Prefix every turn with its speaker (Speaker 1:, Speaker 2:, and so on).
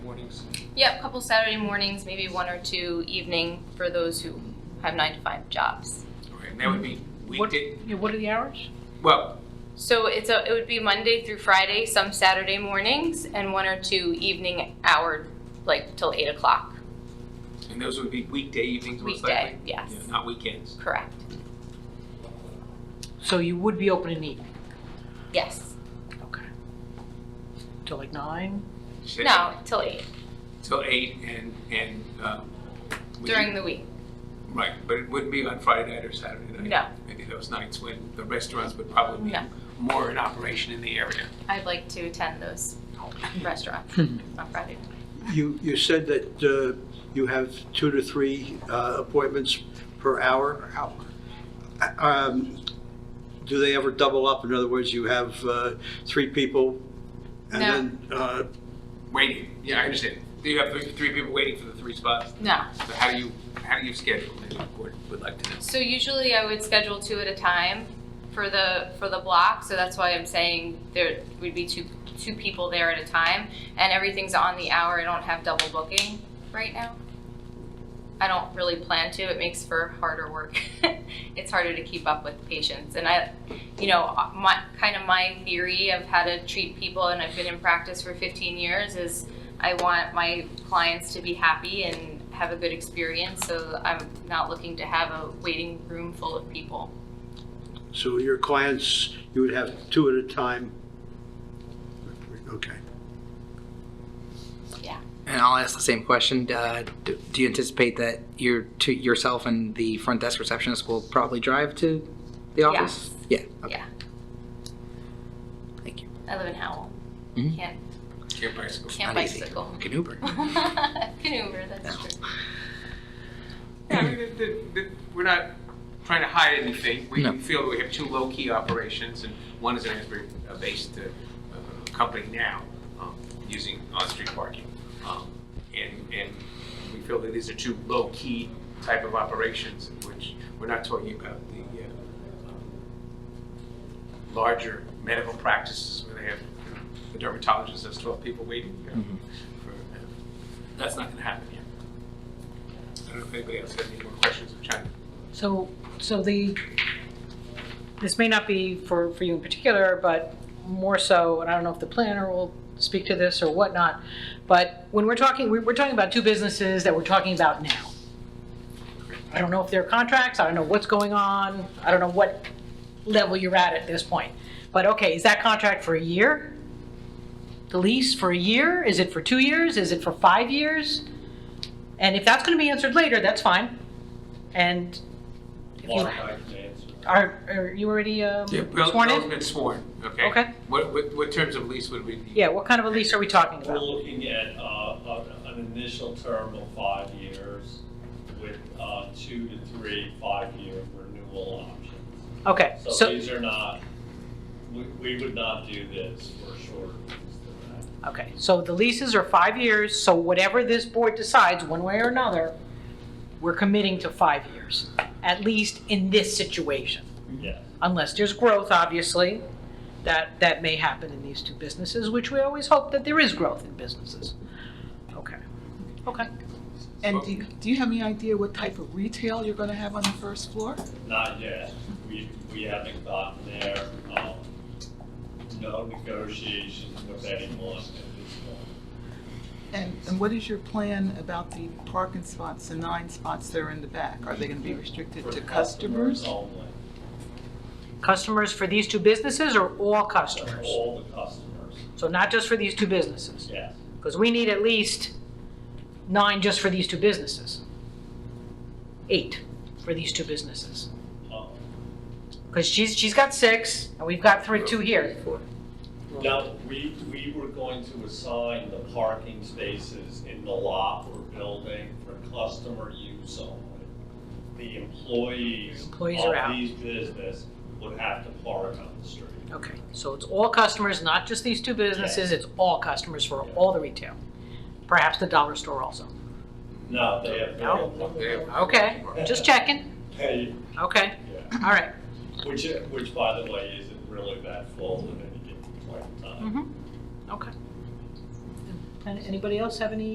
Speaker 1: mornings.
Speaker 2: Yep, couple Saturday mornings, maybe one or two evening for those who have nine to five jobs.
Speaker 1: Okay, and that would be
Speaker 3: What,
Speaker 1: weekday,
Speaker 3: yeah, what are the hours?
Speaker 1: well,
Speaker 2: So it's a, it would be Monday through Friday, some Saturday mornings, and one or two evening hour, like till eight o'clock
Speaker 1: and those would be weekday evenings most
Speaker 2: weekday,
Speaker 1: likely?
Speaker 2: yes,
Speaker 1: Yeah, Not weekends.
Speaker 2: correct,
Speaker 3: So you would be open in the evening?
Speaker 2: yes.
Speaker 3: Okay. Till like nine?
Speaker 1: Say
Speaker 2: No, till eight,
Speaker 1: Till eight and, and, um. we-
Speaker 2: during the week,
Speaker 1: Right, but it wouldn't be on Friday night or Saturday night.
Speaker 2: no.
Speaker 1: Maybe those nights when the restaurants would probably be
Speaker 2: No.
Speaker 1: more in operation in the area.
Speaker 2: I'd like to attend those restaurants on Friday.
Speaker 4: You, you said that uh, you have two to three uh, appointments per hour. How- um, Do they ever double up? In other words, you have uh, three people? and
Speaker 2: No.
Speaker 4: then uh,
Speaker 1: Waiting, yeah, I understand. Do you have three, three people waiting for the three spots?
Speaker 2: No,
Speaker 1: So how do you, how do you schedule? Maybe the board would like to know.
Speaker 2: So usually I would schedule two at a time for the, for the block, so that's why I'm saying there would be two, two people there at a time. And everything's on the hour, I don't have double booking right now. I don't really plan to, it makes for harder work. It's harder to keep up with patients, and I, you know, my, kind of my theory of how to treat people, and I've been in practice for fifteen years, is I want my clients to be happy and have a good experience, so I'm not looking to have a waiting room full of people.
Speaker 4: So your clients, you would have two at a time? Okay.
Speaker 5: And I'll ask the same question. Uh, do, do you anticipate that your to yourself and the front desk receptionist will probably drive to the office? Yeah. Okay.
Speaker 2: Yeah.
Speaker 5: Thank you.
Speaker 2: I live in Howell.
Speaker 5: Mhm.
Speaker 2: Can't,
Speaker 1: Can't bicycle.
Speaker 2: can't
Speaker 5: Not easy.
Speaker 2: bicycle.
Speaker 5: You Can Uber.
Speaker 2: Can Uber, that's
Speaker 5: No.
Speaker 2: true.
Speaker 1: Yeah, I mean, the- the- the- we're not trying to hide anything. We
Speaker 5: No.
Speaker 1: we feel that we have two low-key operations, and one is an Asbury-based uh, uh, company now, um, using on-street parking. Um, And, and we feel that these are two low-key type of operations, in which we're not talking about the uh, um, larger medical practices where they have, you know, the dermatologist has 12 people waiting. you know,
Speaker 5: Mhm.
Speaker 1: for, uh, That's not going to happen yet. I don't know if anybody else has any more questions of China.
Speaker 3: So, so the, this may not be for, for you in particular, but more so, and I don't know if the planner will speak to this or whatnot, but when we're talking, we're, we're talking about two businesses that we're talking about now. I don't know if there are contracts, I don't know what's going on, I don't know what level you're at at this point. But okay, is that contract for a year? The lease for a year? Is it for two years? Is it for five years? And if that's gonna be answered later, that's fine. And if you- Are, are you already um, sworn
Speaker 1: Bill's
Speaker 3: in?
Speaker 1: been sworn, okay?
Speaker 3: Okay.
Speaker 1: What, what, what terms of lease would we need?
Speaker 3: Yeah, what kind of a lease are we talking
Speaker 6: We're
Speaker 3: about?
Speaker 6: looking at uh, an an initial term of five years with uh, two to three five-year renewal options.
Speaker 3: Okay,
Speaker 6: So
Speaker 3: so,
Speaker 6: these are not, we- we would not do this for shorter terms than that.
Speaker 3: okay, so the leases are five years, so whatever this board decides, one way or another, we're committing to five years, at least in this situation.
Speaker 6: Yes,
Speaker 3: Unless there's growth, obviously, that, that may happen in these two businesses, which we always hope that there is growth in businesses. Okay, okay.
Speaker 7: And do, do you have any idea what type of retail you're gonna have on the first floor?
Speaker 6: not yet. We, we haven't gotten there. Um, No negotiations with anyone at this point.
Speaker 7: And, and what is your plan about the parking spots, the nine spots that are in the back? Are they gonna be restricted
Speaker 6: For
Speaker 7: to customers?
Speaker 6: Only,
Speaker 3: Customers for these two businesses or all
Speaker 6: for
Speaker 3: customers?
Speaker 6: all the customers,
Speaker 3: So not just for these two businesses?
Speaker 6: yes.
Speaker 3: Because we need at least nine just for these two businesses. Eight for these two businesses.
Speaker 6: Um,
Speaker 3: Because she's, she's got six, and we've got three, two here.
Speaker 6: No, we, we were going to assign the parking spaces in the lot or building for customer use only. The employees
Speaker 3: Employees are out.
Speaker 6: of these business would have to park on the street.
Speaker 3: Okay, so it's all customers, not just these two businesses, it's all customers for all the retail. Perhaps the dollar store also.
Speaker 6: No, they have
Speaker 3: No.
Speaker 6: no,
Speaker 3: Okay, just checking.
Speaker 6: they,
Speaker 3: Okay,
Speaker 6: yeah,
Speaker 3: all right.
Speaker 6: which, which by the way,
Speaker 3: Mm-hmm.
Speaker 6: isn't really that full at any given point in time.
Speaker 3: Okay. Anybody else have any